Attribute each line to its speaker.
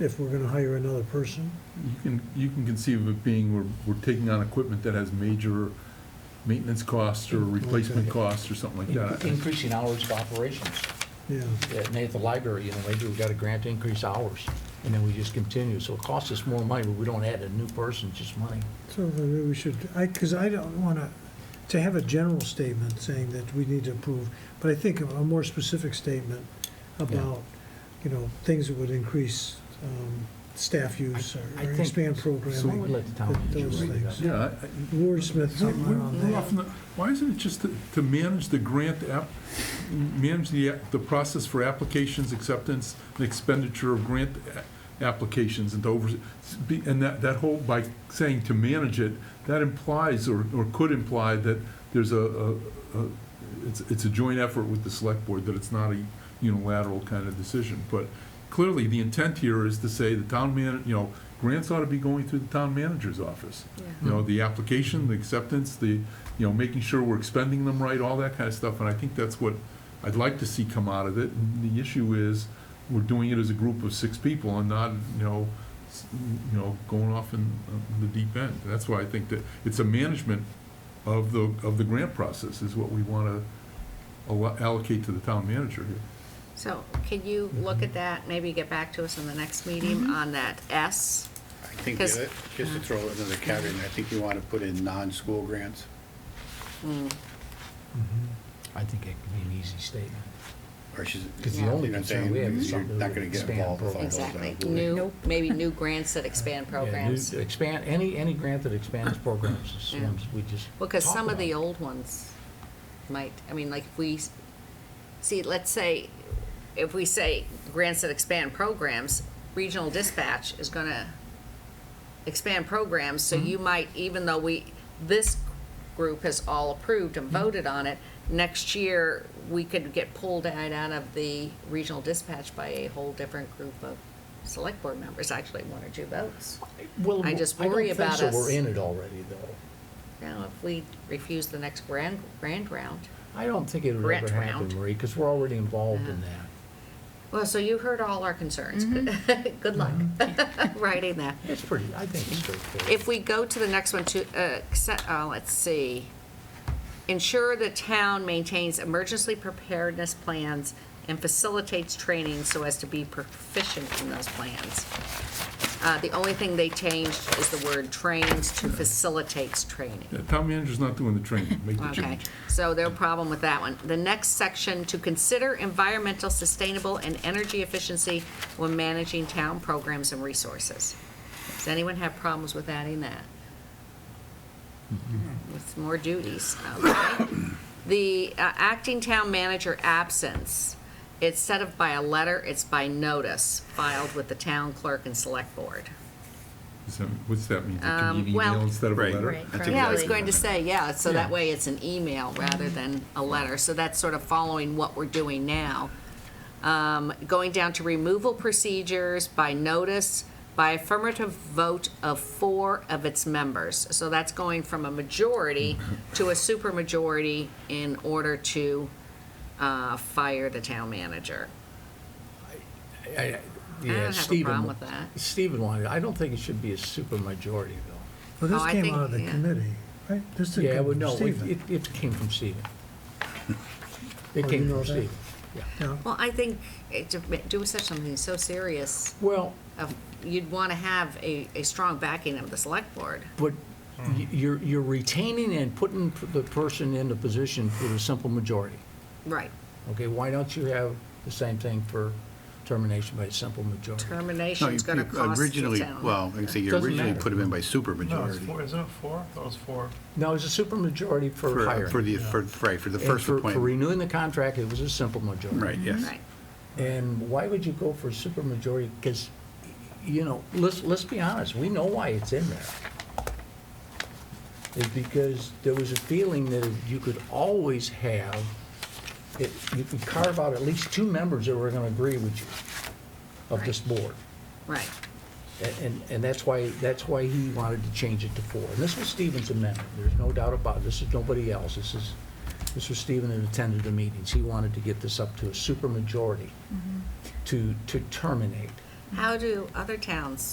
Speaker 1: if we're gonna hire another person?
Speaker 2: You can, you can conceive of it being, we're, we're taking on equipment that has major maintenance costs or replacement costs or something like
Speaker 3: In-
Speaker 2: that.
Speaker 3: Increasing hours of operations.
Speaker 1: Yeah,
Speaker 3: At Nate, the library, you know, maybe we got a grant to increase hours, and then we just continue. So it costs us more money, but we don't add a new person, just money.
Speaker 1: so then maybe we should, I, because I don't wanna, to have a general statement saying that we need to approve, but I think a a more specific statement about, you know, things that would increase um, staff use or-
Speaker 3: I
Speaker 1: or
Speaker 3: think-
Speaker 1: expand
Speaker 3: I would
Speaker 1: programming.
Speaker 3: let the town
Speaker 1: Th-
Speaker 3: manager
Speaker 1: those
Speaker 3: read it
Speaker 1: things.
Speaker 3: up.
Speaker 2: Yeah, I-
Speaker 1: Wordsmith
Speaker 2: We're-
Speaker 1: something
Speaker 2: We're
Speaker 1: around
Speaker 2: we're
Speaker 1: that.
Speaker 2: often, why isn't it just to, to manage the grant app, manage the, app- the process for applications, acceptance, and expenditure of grant a- applications and to over, be- and that, that whole, by saying to manage it, that implies or, or could imply that there's a, a, a- it's, it's a joint effort with the select board, that it's not a unilateral kind of decision. But clearly, the intent here is to say the town man, you know, grants ought to be going through the town manager's office. You know, the application, the acceptance, the, you know, making sure we're expending them right, all that kind of stuff, and I think that's what I'd like to see come out of it. And the issue is, we're doing it as a group of six people and not, you know, s- you know, going off in uh, the deep end. That's why I think that it's a management of the, of the grant process is what we wanna allo- allocate to the town manager here.
Speaker 4: So can you look at that, maybe get back to us in the next meeting
Speaker 3: Mm-hmm.
Speaker 4: on that S?
Speaker 5: I think, the
Speaker 4: 'Cause-
Speaker 5: other- just to throw another caveat, in there, I think you want to put in non-school grants.
Speaker 3: I think it could be an easy statement.
Speaker 5: Or she's,
Speaker 3: Because the
Speaker 5: you know
Speaker 3: only
Speaker 5: what I'm
Speaker 3: concern
Speaker 5: saying,
Speaker 3: we have is
Speaker 5: you're
Speaker 3: something
Speaker 5: not
Speaker 3: that
Speaker 5: going to get
Speaker 3: expand
Speaker 5: involved with all those. uh,
Speaker 4: Exactly,
Speaker 5: rules.
Speaker 4: new, maybe new grants that expand
Speaker 3: Yeah, new-
Speaker 4: programs. Well,
Speaker 3: Expand, any, any grant that expands programs, is
Speaker 4: Yeah.
Speaker 3: ones we just.
Speaker 4: because
Speaker 3: talk
Speaker 4: some of the
Speaker 3: about.
Speaker 4: old ones might, I mean, like if we, s- see, let's say, if we say grants that expand programs, regional dispatch is gonna expand programs, so
Speaker 3: Mm-hmm.
Speaker 4: you might, even though we, this group has all approved and
Speaker 3: Mm-hmm.
Speaker 4: voted on it, next year, we could get pulled right out of the regional dispatch by a whole different group of select board members, actually one or two votes.
Speaker 3: Well,
Speaker 4: I just
Speaker 3: don't
Speaker 4: worry
Speaker 3: think
Speaker 4: about
Speaker 3: so.
Speaker 4: us.
Speaker 3: We're in it already, though.
Speaker 4: Now, if we refuse the next grand, grand round.
Speaker 3: I don't think it would
Speaker 4: Grant
Speaker 3: ever happen,
Speaker 4: round.
Speaker 3: Marie, because we're already involved in that.
Speaker 4: Well, so you heard all our concerns. Good luck writing that.
Speaker 3: It's pretty, I think it's straightforward.
Speaker 4: If we go to the next one to, uh, accept- oh, let's see. Ensure the town maintains emergency preparedness plans and facilitates training so as to be proficient in those plans. Uh, The only thing they changed is the word trains to facilitates training.
Speaker 2: The town manager's not doing the training, make the
Speaker 4: Okay,
Speaker 2: change.
Speaker 4: so their problem with that one. The next section, to consider environmental, sustainable, and energy efficiency when managing town programs and resources. Does anyone have problems with adding that? With more duties, okay. The uh, acting town manager absence, instead of by a letter, it's by notice filed with the town clerk and select board.
Speaker 2: Is that- What's that mean? Can
Speaker 4: Um,
Speaker 2: you
Speaker 4: well-
Speaker 2: email instead of a
Speaker 5: Right.
Speaker 2: letter?
Speaker 6: Right.
Speaker 5: That's
Speaker 4: Yeah, I was
Speaker 5: exactly-
Speaker 4: going to say, yeah, so that
Speaker 2: Yeah.
Speaker 4: way it's an email rather than a letter. So that's sort of following what we're doing now. Um, Going down to removal procedures by notice, by affirmative vote of four of its members. So that's going from a majority to a supermajority in order to uh, fire the town manager.
Speaker 3: I- I-
Speaker 4: don't
Speaker 3: yeah,
Speaker 4: have a
Speaker 3: Stephen-
Speaker 4: problem with that.
Speaker 3: Stephen wanted, I don't think it should be a super majority, though.
Speaker 1: Well,
Speaker 4: Oh,
Speaker 1: this
Speaker 4: I
Speaker 1: came
Speaker 4: think-
Speaker 1: out of the
Speaker 4: yeah.
Speaker 1: committee, right? This didn't
Speaker 3: Yeah,
Speaker 1: come
Speaker 3: well,
Speaker 1: from
Speaker 3: no, it,
Speaker 1: Stephen.
Speaker 3: it- it came from Stephen.
Speaker 1: Oh,
Speaker 3: It
Speaker 1: you
Speaker 3: came
Speaker 1: know that?
Speaker 3: from Stephen, yeah.
Speaker 1: Yeah.
Speaker 4: Well, I think it- to do such something so serious,
Speaker 3: Well,
Speaker 4: of- you'd want to have a a strong backing of the select board.
Speaker 3: but
Speaker 5: Hmm.
Speaker 3: y- you're, you're retaining and putting p- the person in the position with a simple majority.
Speaker 4: Right.
Speaker 3: Okay, why don't you have the same thing for termination by a simple majority?
Speaker 5: No,
Speaker 4: Termination's
Speaker 5: you-
Speaker 4: going to
Speaker 5: you
Speaker 4: cost the
Speaker 5: Originally,
Speaker 4: town.
Speaker 5: well, I can say you
Speaker 3: Doesn't
Speaker 5: originally
Speaker 3: matter.
Speaker 5: put them in by
Speaker 7: No, it's
Speaker 5: supermajority.
Speaker 7: four, isn't it four? That was four.
Speaker 3: No, it's a super majority for
Speaker 5: For, uh,
Speaker 3: hiring.
Speaker 5: for the, for, right, for the
Speaker 3: And
Speaker 5: first
Speaker 3: for- For
Speaker 5: appointment.
Speaker 3: renewing the contract, it was a simple majority.
Speaker 5: Right, yes.
Speaker 4: Right.
Speaker 3: And why would you go for a supermajority? Because, you know, let's, let's be honest, we know why it's in there. It's because there was a feeling that you could always have, it- you could carve out at least two members that were going to agree with you of this board.
Speaker 4: Right.
Speaker 3: A- And, and that's why, that's why he wanted to change it to four. And this was Stephen's amendment, there's no doubt about it, this is nobody else, this is, this was Stephen that attended the meetings. He wanted to get this up to a supermajority to, to terminate.
Speaker 4: How do other towns